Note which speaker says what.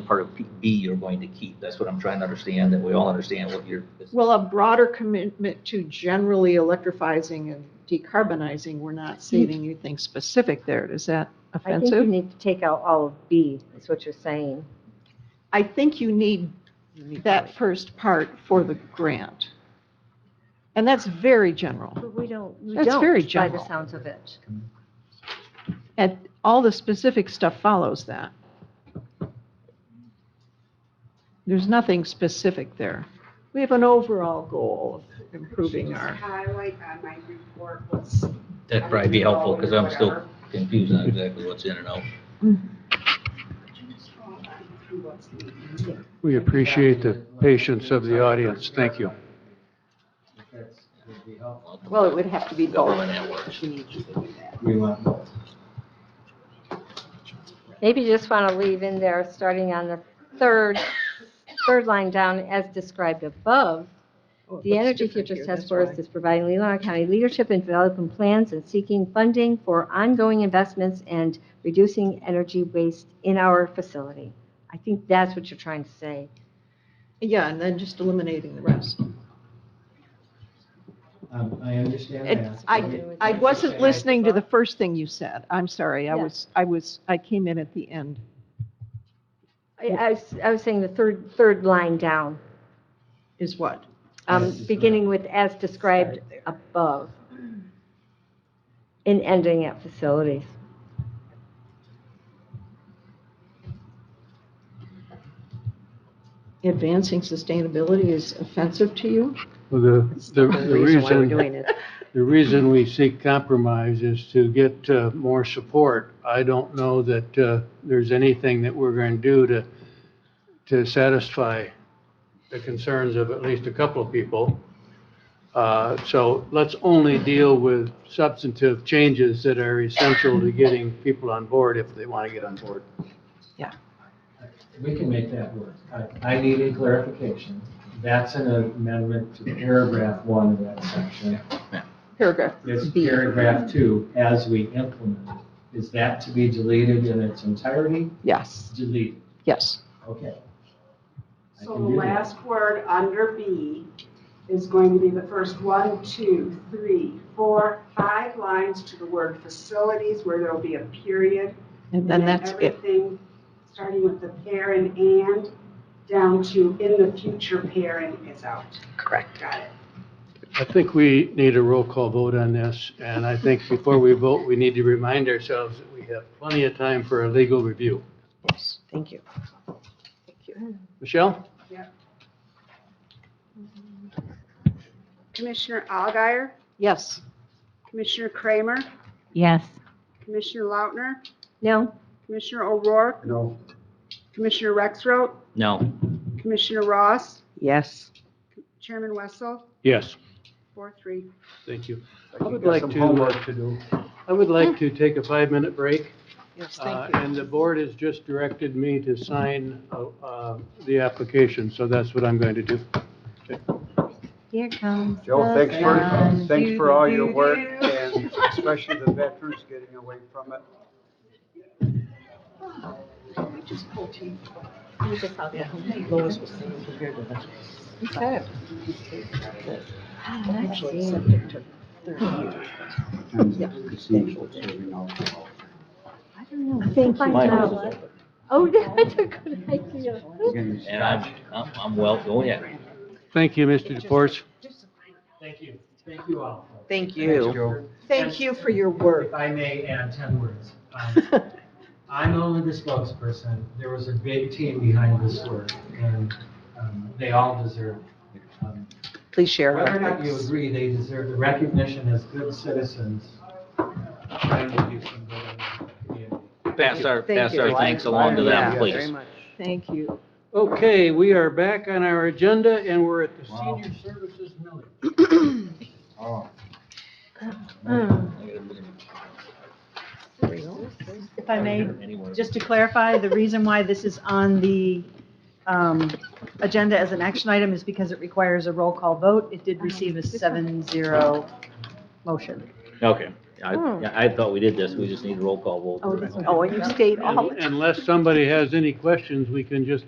Speaker 1: part of P- B you're going to keep? That's what I'm trying to understand, that we all understand what you're,
Speaker 2: Well, a broader commitment to generally electrifying and decarbonizing, we're not saving anything specific there. Is that
Speaker 3: I think you
Speaker 2: offensive?
Speaker 3: need to take out all of B, is what you're saying.
Speaker 2: I think you need that first part for the grant. And that's very general.
Speaker 3: But we don't, we
Speaker 2: That's very
Speaker 3: don't, by the
Speaker 2: general.
Speaker 3: sounds of it.
Speaker 2: And all the specific stuff follows that. There's nothing specific there. We have an overall goal of improving our,
Speaker 4: Highlight on uh, my report what's.
Speaker 1: that'd probably be helpful, because I'm still confused on exactly what's in and out.
Speaker 5: We appreciate the patience of the audience. Thank you.
Speaker 6: Well, it would have to be both.
Speaker 1: However that works.
Speaker 6: You need to do that.
Speaker 7: We want both.
Speaker 3: Maybe you just want to leave in there, starting on the third, third line down, as described above,
Speaker 6: Oh,
Speaker 3: The Energy Futures Task Force is providing Leland County leadership in developing plans and seeking funding for ongoing investments and reducing energy waste in our facility. I think that's what you're trying to say.
Speaker 2: yeah, and then just eliminating the rest.
Speaker 7: Um, I understand
Speaker 2: It-
Speaker 7: that.
Speaker 2: I, I wasn't listening to the first thing you said. I'm sorry. I
Speaker 3: Yeah.
Speaker 2: was, I was, I came in at the end.
Speaker 3: I, I was, I was saying the third, third line down,
Speaker 2: Is what?
Speaker 3: um,
Speaker 7: Yes, it's
Speaker 3: beginning with as described
Speaker 2: Start there.
Speaker 3: above and ending at facilities.
Speaker 2: Advancing sustainability is offensive to you?
Speaker 5: Well, The, the the reason,
Speaker 6: it.
Speaker 5: the reason we seek compromise is to get uh, more support. I don't know that uh, there's anything that we're going to do to, to satisfy the concerns of at least a couple of people. Uh, So let's only deal with substantive changes that are essential to getting people on board if they want to get on board.
Speaker 7: We can make that work. I, I needed clarification. That's an amendment to paragraph one of that section.
Speaker 2: Paragraph
Speaker 7: It's
Speaker 2: B.
Speaker 7: paragraph two, as we implement. it. Is that to be deleted in its entirety?
Speaker 2: Yes,
Speaker 7: Deleted,
Speaker 2: yes.
Speaker 7: okay. I
Speaker 4: So the
Speaker 7: can do that.
Speaker 4: last word under B is going to be the first one, two, three, four, five lines to the word facilities where there'll be a period.
Speaker 2: And then that's it.
Speaker 4: Everything, starting with the parent and down to in the future parent is out. Correct. Got it.
Speaker 5: I think we need a roll call vote on this, and I think before we vote, we need to remind ourselves that we have plenty of time for a legal review.
Speaker 6: Yes, thank you.
Speaker 5: Michelle?
Speaker 4: Commissioner Alguier,
Speaker 2: Yes.
Speaker 4: Commissioner Kramer,
Speaker 3: Yes.
Speaker 4: Commissioner Lautner,
Speaker 3: No?
Speaker 4: Commissioner O'Rourke,
Speaker 7: No,
Speaker 4: Commissioner Rexroth,
Speaker 1: No,
Speaker 4: Commissioner Ross,
Speaker 6: Yes.
Speaker 4: Chairman Wessel,
Speaker 5: Yes.
Speaker 4: four, three.
Speaker 5: Thank you. I
Speaker 7: I
Speaker 5: would
Speaker 7: would
Speaker 5: like
Speaker 7: some
Speaker 5: to-
Speaker 7: homework to do.
Speaker 5: I would like to take a five-minute break.
Speaker 2: Yes,
Speaker 5: Uh,
Speaker 2: thank you.
Speaker 5: And the board has just directed me to sign uh, uh, the application, so that's what I'm going to do.
Speaker 3: Here comes
Speaker 8: Joe,
Speaker 3: the
Speaker 8: thanks for,
Speaker 3: sun.
Speaker 8: thanks for all your
Speaker 3: Do-do-do-do.
Speaker 8: work and especially the veterans getting away from it.
Speaker 6: Okay.
Speaker 3: I don't know.
Speaker 6: Thank
Speaker 3: Find
Speaker 1: mine
Speaker 3: out.
Speaker 1: was,
Speaker 3: Oh, that's a good idea.
Speaker 1: and I'm, I'm, I'm well, oh yeah.
Speaker 5: Thank you, Mr. DeForest.
Speaker 7: Thank you, thank you all.
Speaker 6: Thank
Speaker 7: Thanks,
Speaker 6: you.
Speaker 7: Joe.
Speaker 2: Thank you for your work.
Speaker 7: If I may add 10 words. Um, I'm only the spokesperson. There was a big team behind this work, and um, they all deserve, um,
Speaker 6: Please share.
Speaker 7: whether
Speaker 6: our
Speaker 7: or not you
Speaker 6: thanks.
Speaker 7: agree, they deserve the recognition as good citizens. trying to do some good in the community.
Speaker 1: Pass our,
Speaker 6: Thank
Speaker 1: pass
Speaker 6: you.
Speaker 1: our thanks along to
Speaker 6: Yeah,
Speaker 1: them,
Speaker 6: Very
Speaker 1: please.
Speaker 6: much.
Speaker 2: Thank you.
Speaker 5: Okay, we are back on our agenda, and we're at the
Speaker 1: Wow.
Speaker 5: senior services millage.
Speaker 8: Oh.
Speaker 9: If I may, just to clarify, the reason why this is on the um, agenda as an action item is because it requires a roll call vote. It did receive a 7-0 motion.
Speaker 1: Okay, I, I thought we did this,
Speaker 2: Oh,
Speaker 1: we just need a roll call vote.
Speaker 6: Oh, and you state all.
Speaker 5: Unless somebody has any questions, we can just